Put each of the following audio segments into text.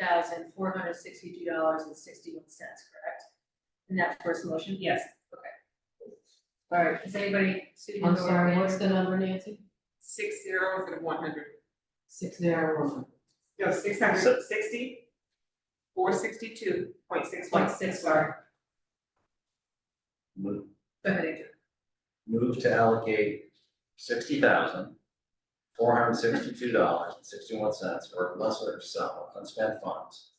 thousand four hundred sixty-two dollars and sixty-one cents, correct? And that's first motion? Yes. All right, is anybody sitting in I'm the sorry, room? what's the number, Nancy? Six zero instead of one hundred. Six zero one. No, six hundred sixty. Four sixty-two point six one. Point six, sorry. Move, Go ahead, Adrian. move to allocate sixty thousand, four hundred sixty-two dollars and sixty-one cents for a lesser sum of unspent funds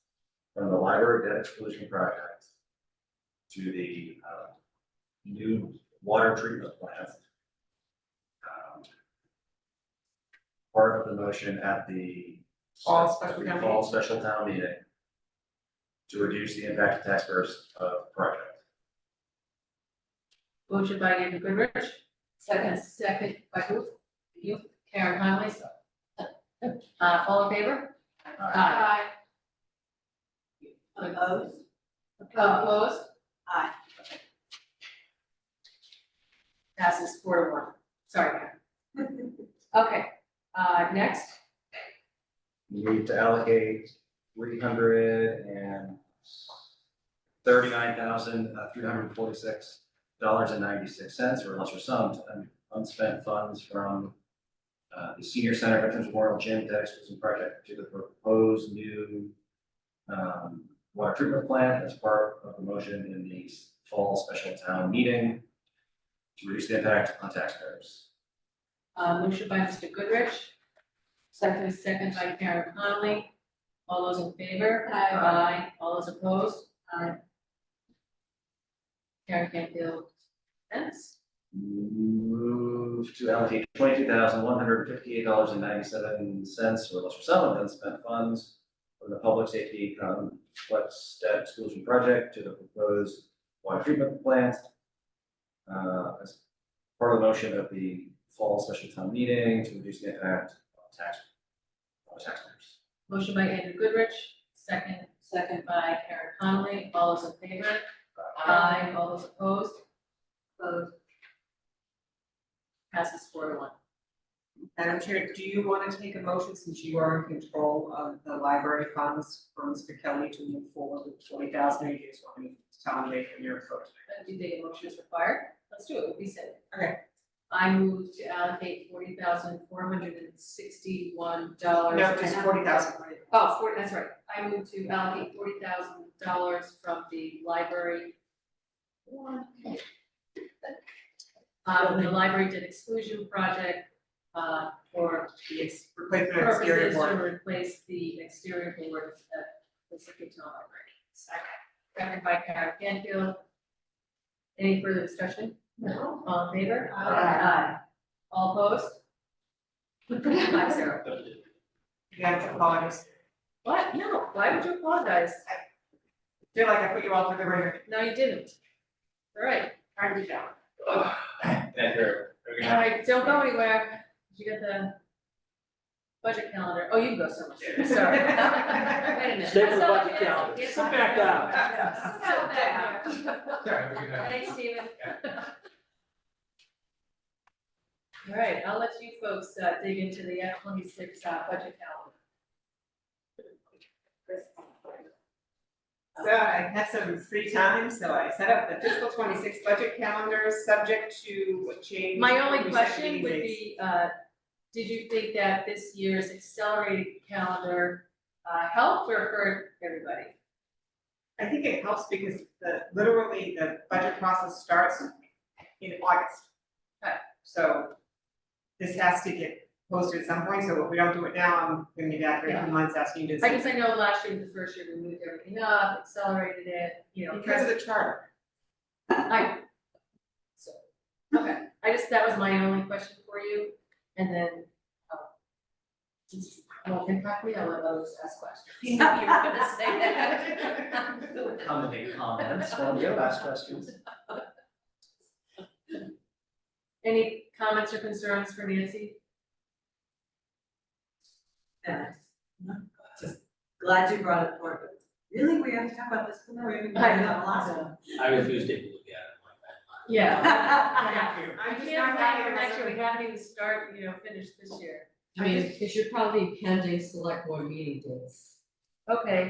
from the library debt exclusion project to the, uh, new water treatment plant. um, Part of the motion at the. Fall special town Fall special town meeting to reduce the impact to taxpayers of project. Motion by Andrew Goodrich, second, second by who? You, Karen Conley. Uh, all in favor? Uh, Aye. Opposed? Opposed? Aye. Okay. Passes four to one, sorry, Karen. Okay, uh, next, need to allocate three hundred and thirty-nine thousand, uh, three hundred and forty-six dollars and ninety-six cents or lesser sum to un- unspent funds from uh, the Senior Center Veterans Memorial Gym Debt Exclusion Project to the proposed new um, water treatment plant as part of the motion in the fall special town meeting to reduce the impact on taxpayers. uh, motion by Mr. Goodrich, second, second by Karen Conley. All those in favor? Aye. Aye, all those opposed? Aye. Karen Canfield, Spence. Move to allocate twenty-two thousand one hundred fifty-eight dollars and ninety-seven cents for lesser sum of unspent funds from the Public Safety Complex Debt Exclusion Project to the proposed water treatment plant. uh, as part of the motion of the fall special town meeting to reduce the impact on tax, on taxpayers. Motion by Andrew Goodrich, second, second by Karen Conley, all those in favor? Aye. All those opposed? Opposed. Passes four to one. Madam Chair, do you want to take a motion since you are in control of the library funds for Mr. Kelly to move forward with twenty thousand, or you just want me to tell him later in your vote? Uh, Do the motion is required? Let's do it, we'll be safe. Okay. I move to allocate forty thousand four hundred and sixty-one dollars. No, just forty thousand. Oh, forty, that's right. I move to allocate forty thousand dollars from the library. Uh, the library debt exclusion project, uh, for the ex- Replacement of exterior purposes to board. replace the exterior board at the Second Town Library. Second, seconded by Karen Canfield. Any further discussion? No. All in favor? Aye. All opposed? Five zero. Yeah, apologies. What? No, why would you apologize? I feel like I put you all through the ringer. No, you didn't. All right, Trying to be down. Thank all right, don't go anywhere. Did you get the budget calendar? Oh, you can go so much, sorry. Wait a minute. Stay for the That's not- budget it's- calendar. it's Sit not- back down. Sit back down. Thanks, Steven. All right, I'll let you folks uh, dig into the F twenty-six uh, budget So I had some free time, so I set up the fiscal twenty-six budget calendar, subject to calendar. change. My only Recent question meeting would dates. be, uh, did you think that this year's accelerated calendar uh, helped or hurt everybody? I think it helps because the, literally, the budget process starts in August. Right. So this has to get posted at some point, so if we don't do it now, I'm gonna be back here in a few months asking you to. I guess I know last year, the first year, we moved everything up, accelerated it, you know. Because of the charter. I, so, okay, I just, that was my only question for you, and then, um, since you won't impact me, I'll let others ask questions. You were gonna say that. Commenting comments, one of your last questions. Any comments or concerns for Nancy? Yeah. Just glad you brought it forward. Really, we have to talk about this, we haven't I talked about the last one. I refuse to even look at it like that. Yeah. Thank you. I I'm just can't not imagine, happy next year, with we haven't even started, you know, finished this year. I mean, it should probably be pending select board meeting dates. Okay,